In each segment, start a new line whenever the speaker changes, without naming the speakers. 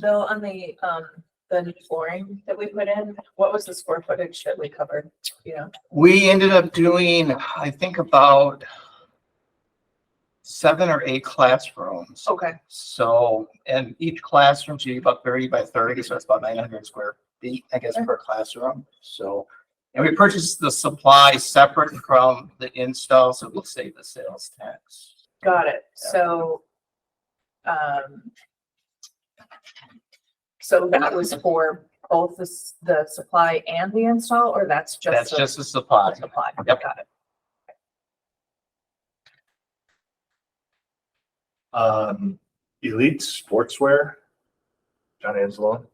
Bill, on the, um, the new flooring that we put in, what was the square footage that we covered, you know?
We ended up doing, I think about seven or eight classrooms.
Okay,
So, and each classroom's usually about thirty by thirty, so it's about nine hundred square feet, I guess, per classroom. So, and we purchased the supply separate from the install, so we'll save the sales tax.
got it, so, um, so that was for both the, s- the supply and the install, or that's just?
That's
the-
just the supply.
Supply,
Yep.
got it.
Um, Elite Sportswear, John Hmm, Anzalone.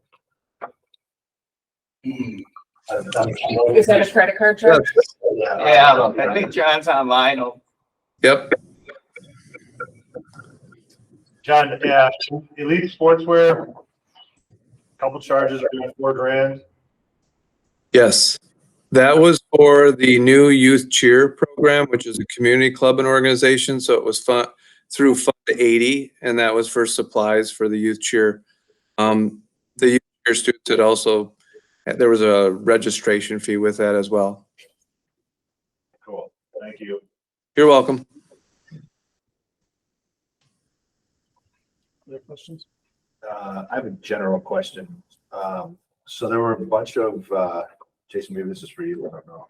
Is that a credit card charge?
Yeah, I think John's online. will
Yep,
John, yeah, Elite Sportswear, couple charges, around four grand.
yes. That was for the new youth cheer program, which is a community club and organization, so it was fun through Fund eighty, and that was for supplies for the youth cheer. Um, the youth cheer students had also, there was a registration fee with that as well.
Cool, thank you.
You're welcome.
Other questions? Uh, I have a general question. Um, so there were a bunch of, uh, Jason, maybe this is for you, I don't know.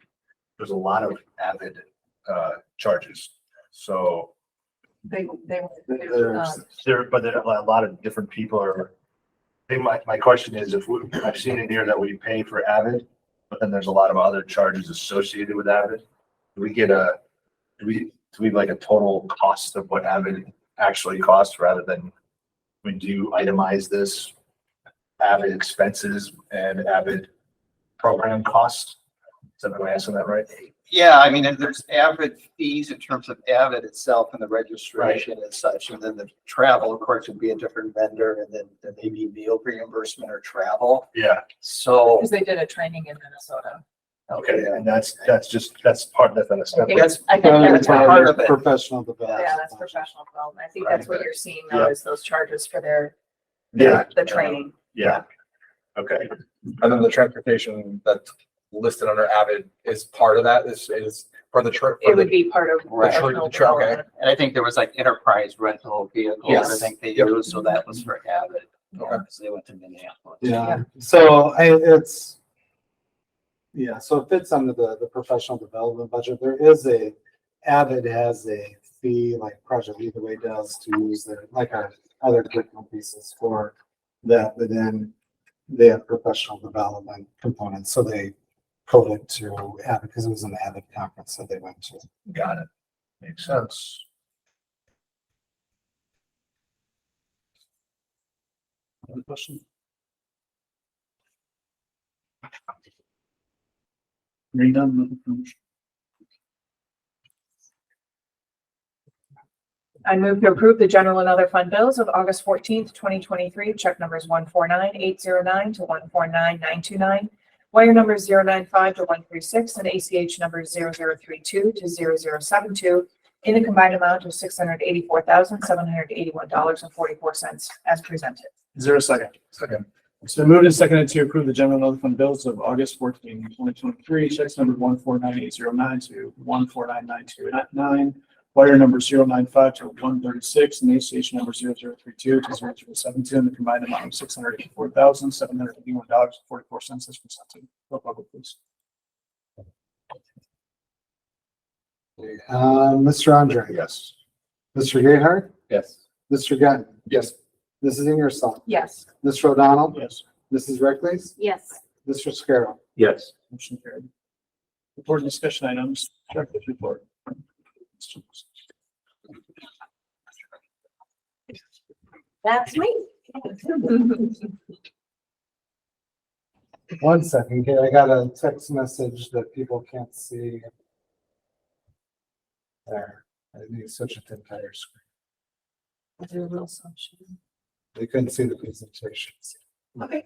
There's a lot of Avid, uh, charges. So
They, they. were, uh,
There's, there, but there, a lot of different people are. I think my, my question is if we, I've seen it here that we pay for Avid, but then there's a lot of other charges associated with Avid. Do we get a, do we, do we like a total cost of what Avid actually costs rather than? When you itemize this? Avid expenses and Avid program costs? Is that, am I asking that right?
Yeah, I mean, and there's avid fees in terms of avid itself and the registration and such, and then the travel, of course, would be a different vendor, and then there may be meal reimbursement or travel,
Yeah,
so.
Cause they did a training in Minnesota.
okay, and that's, that's just, that's part, that's not a separate.
That's-
I think that's
that's why-
what-
part of it.
Professional development.
Yeah, that's professional development. I think that's what you're seeing now
Yeah.
is those charges for their,
Yeah.
the training.
Yeah. Okay,
And then the transportation that's listed under Avid is part of that, is, is for the trip.
It would be part of.
Right.
professional
The truck, okay.
development.
And I think there was like enterprise rental vehicles, I
Yes.
think they
Yep.
used, so that was for avid.
Okay.
So They went to Minneapolis.
Yeah.
Yeah, so I, it's. Yeah, so it fits under the, the professional development budget. There is a, Avid has a fee like Project Leadway does to use their, like our other curriculum pieces for that, but then they have professional development components, so they code it to Avid because it was an Avid conference that they went to.
got it. Makes sense.
Other questions?
I move to approve the general and other fund bills of August fourteenth, twenty twenty-three, check numbers one four nine eight zero nine to one four nine nine two nine, wire numbers zero nine five to one three six, and ACH numbers zero zero three two to zero zero seven two in a combined amount of six hundred eighty-four thousand, seven hundred eighty-one dollars and forty-four cents as presented.
Is there a second? Second. So moved and seconded to approve the general and other fund bills of August 14, 2023, checks number one four nine eight zero nine to one four nine nine two nine, wire number zero nine five to one thirty-six, and ACH number zero zero three two to zero zero seven two, and the combined amount of six hundred eighty-four thousand, seven hundred eighty-one dollars, forty-four cents as presented. Roll call, vote, please.
Uh, Mr. Andre,
Yes.
Mr. Gayheart,
Yes.
Mr. Gunn,
Yes.
Mrs. Ingersoll,
Yes.
Mr. O'Donnell,
Yes.
Mrs. Reckles,
Yes.
Mr. Scarrow.
Yes.
Motion carried. Report and discussion items, director's report.
That's me.
One second, okay, I got a text message that people can't see. There, I need to switch it to entire screen. They couldn't see the presentations.
Okay.